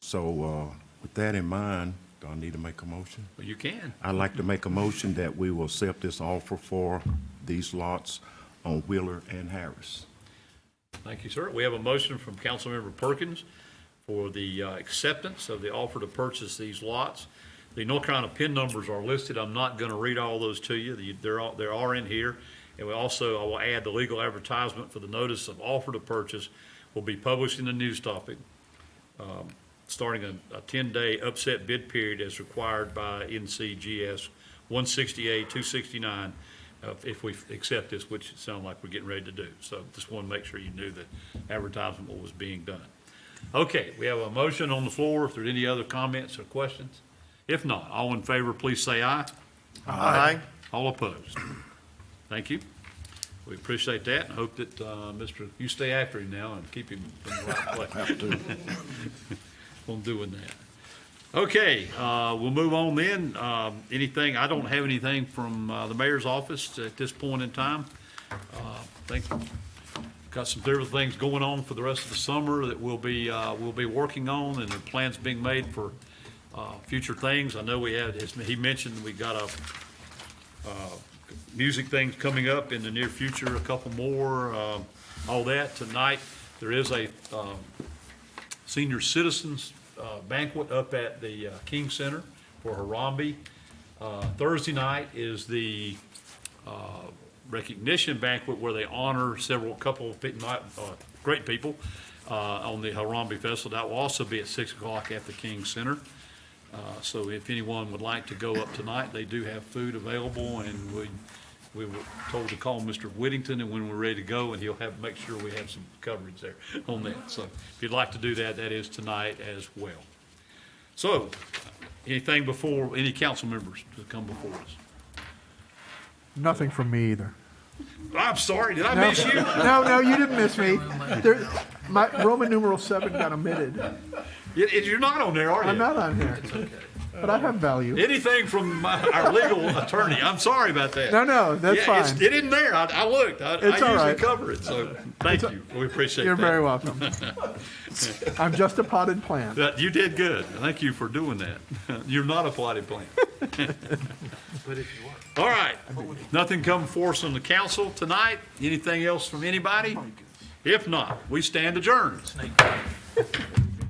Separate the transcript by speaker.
Speaker 1: So uh, with that in mind, do I need to make a motion?
Speaker 2: Well, you can.
Speaker 1: I'd like to make a motion that we will accept this offer for these lots on Wheeler and Harris.
Speaker 2: Thank you, sir. We have a motion from Councilmember Perkins for the uh, acceptance of the offer to purchase these lots. The North Carolina PIN numbers are listed. I'm not going to read all those to you. The- They're, all- they are in here. And we also, I will add the legal advertisement for the notice of offer to purchase will be published in the news topic, um, starting a, a 10-day upset bid period as required by NCGS 168, 269, uh, if we accept this, which it sounds like we're getting ready to do. So just want to make sure you knew that advertisement was being done. Okay, we have a motion on the floor. If there are any other comments or questions? If not, all in favor, please say aye.
Speaker 3: Aye.
Speaker 2: All opposed? Thank you. We appreciate that and hope that, uh, Mr., you stay after him now and keep him in the right place on doing that. Okay, uh, we'll move on then. Um, Anything, I don't have anything from uh, the mayor's office at this point in time. Uh, Think, got some different things going on for the rest of the summer that we'll be, uh, we'll be working on, and the plans being made for uh, future things. I know we had, as he mentioned, we got a music things coming up in the near future, a couple more, um, all that. Tonight, there is a um, senior citizens uh, banquet up at the uh, King Center for Harambe. Uh, Thursday night is the uh, recognition banquet where they honor several, couple of pe- not, uh, great people uh, on the Harambe Festival. That will also be at 6 o'clock at the King Center. Uh, So if anyone would like to go up tonight, they do have food available, and we, we were told to call Mr. Whittington, and when we're ready to go, and he'll have, make sure we have some coverage there on that. So if you'd like to do that, that is tonight as well. So, anything before, any council members to come before us?
Speaker 3: Nothing from me either.
Speaker 2: I'm sorry, did I miss you?
Speaker 3: No, no, you didn't miss me. There, my Roman numeral seven got omitted.
Speaker 2: You- You're not on there, are you?
Speaker 3: I'm not on here, but I have value.
Speaker 2: Anything from my- our legal attorney, I'm sorry about that.
Speaker 3: No, no, that's
Speaker 2: Yeah, it's-
Speaker 3: fine.
Speaker 2: It isn't there, I, I looked, I, I
Speaker 3: It's all
Speaker 2: usually
Speaker 3: right.
Speaker 2: cover it, so, thank you, we appreciate that.
Speaker 3: You're very welcome. I'm just a potted plant.
Speaker 2: That- you did good. Thank you for doing that. You're not a plotted plan. All right. Nothing come for us on the council tonight? Anything else from anybody? If not, we stand adjourned.